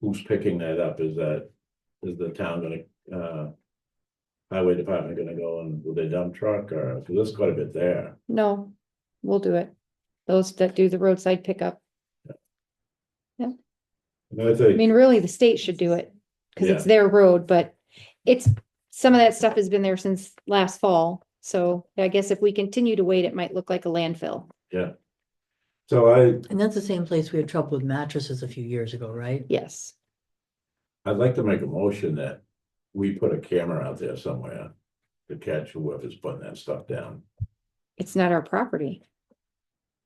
who's picking that up? Is that, is the town gonna, uh. Highway department gonna go in with a dump truck or, cause there's quite a bit there. No, we'll do it. Those that do the roadside pickup. And I I think, mean, really, the state should do it because it's their road, but it's, some of that stuff has been there since last fall. So I guess if we continue to wait, it might look like a landfill. so I, And that's the same place we had trouble with mattresses a few years ago, right? Yes. I'd like to make a motion that we put a camera out there somewhere. To catch whoever's putting that stuff down, It's not our property.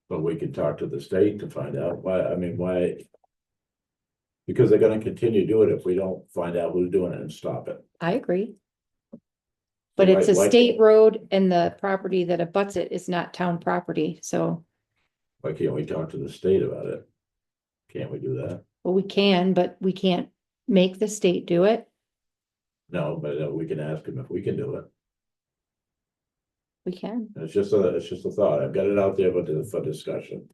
but we could talk to the state to find out why, I mean, why. Because they're gonna continue doing it if we don't find out who's doing it and stop it. I agree. But Right, it's a like- state road and the property that abuts it is not town property. So, Why can't we talk to the state about it? Can't we do that? well, we can, but we can't make the state do it. No, but uh, we can ask them if we can do it. We can. It's just a, it's just a thought. I've got it out there, but for discussion.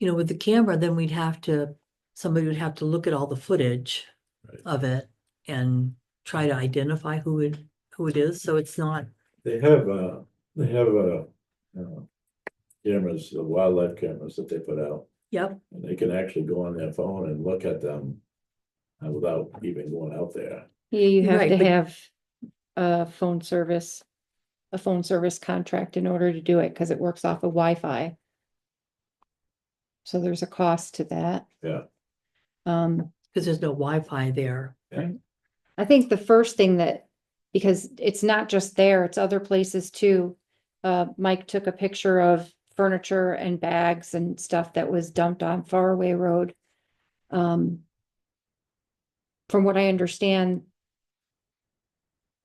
You know, with the camera, then we'd have to, somebody would have to look at all the footage Right. of it and try to identify who it, who it is, so it's not, They have, uh, they have, uh, uh, cameras, the wildlife cameras that they put out. yep, And they can actually go on their phone and look at them uh, without even going out there. Yeah, you have Right, to but- have a phone service, a phone service contract in order to do it, because it works off of Wi-Fi. So there's a cost to that. Yeah. Um, because there's no Wi-Fi there. I think the first thing that, because it's not just there, it's other places too. Uh, Mike took a picture of furniture and bags and stuff that was dumped on Faraway Road. Um. From what I understand.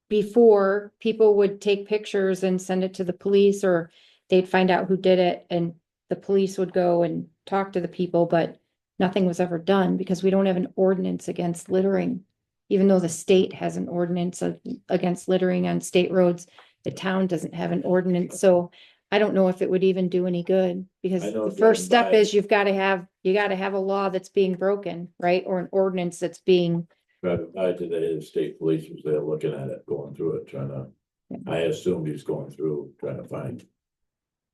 Before, people would take pictures and send it to the police or they'd find out who did it and the police would go and talk to the people, but. Nothing was ever done because we don't have an ordinance against littering even though the state has an ordinance of- against littering on state roads, the town doesn't have an ordinance, so I don't know if it would even do any good, because I know the it's first written step by- is you've gotta have, you gotta have a law that's being broken, right? Or an ordinance that's being, But I today, the state police was there looking at it, going through it, trying to, Yeah. I assumed he's going through, trying to find.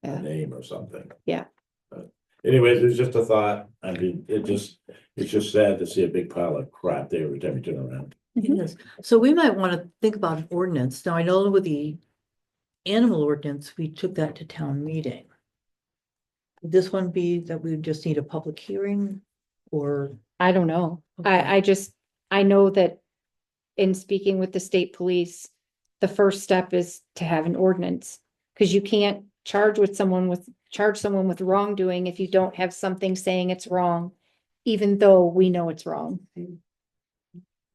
A Yeah. name or something. Yeah. But anyways, it was just a thought. I mean, it just, it's just sad to see a big pile of crap there every time you turn around. Mm-hmm. It is. So we might want to think about an ordinance. Now, I know with the animal ordinance, we took that to town meeting. Would This one be that we just need a public hearing or? I don't know. Okay. I, I just, I know that in speaking with the state police, the first step is to have an ordinance. Cause you can't charge with someone with, charge someone with wrongdoing if you don't have something saying it's wrong, even though we know it's wrong.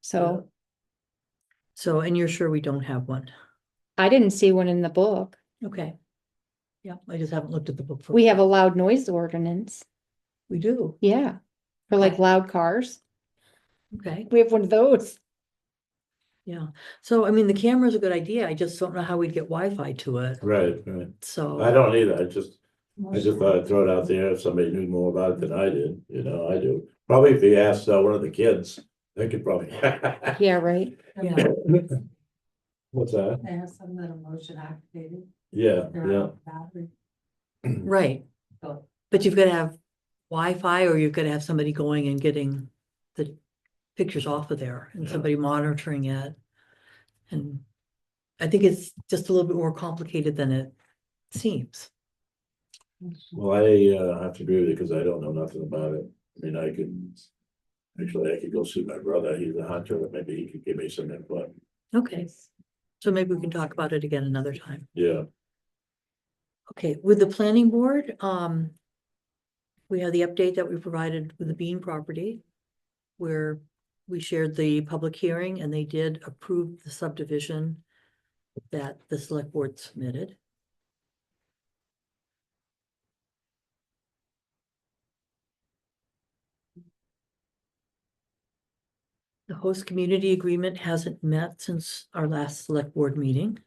So So, and you're sure we don't have one? I didn't see one in the book. Okay. Yeah, I just haven't looked at the book. for- We have a loud noise ordinance. We do, Yeah. For like Okay. loud cars. okay, We have one of those. yeah. So I mean, the camera's a good idea. I just don't know how we'd get Wi-Fi to it, Right, right. so. I don't either. I just, I just thought I'd throw it out there if somebody knew more about it than I did, you know, I do. Probably if you asked uh, one of the kids, they could probably. Yeah, right. Yeah, What's that? They have some that are motion activated, Yeah, they're yeah. out of battery, right, Oh. so but you've got to have Wi-Fi, or you've got to have somebody going and getting the pictures off of there and Yeah. somebody monitoring it. And I think it's just a little bit more complicated than it seems. Well, I uh have to agree with you because I don't know nothing about it. I mean, I could. Actually, I could go see my brother. He's a hunter, but maybe he could give me some input. Okay, so maybe we can talk about it again another time. Yeah, Okay, with the planning board, um. We have the update that we provided with the Bean property. Where we shared the public hearing and they did approve the subdivision. That the select board submitted. The host community agreement hasn't met since our last select board meeting.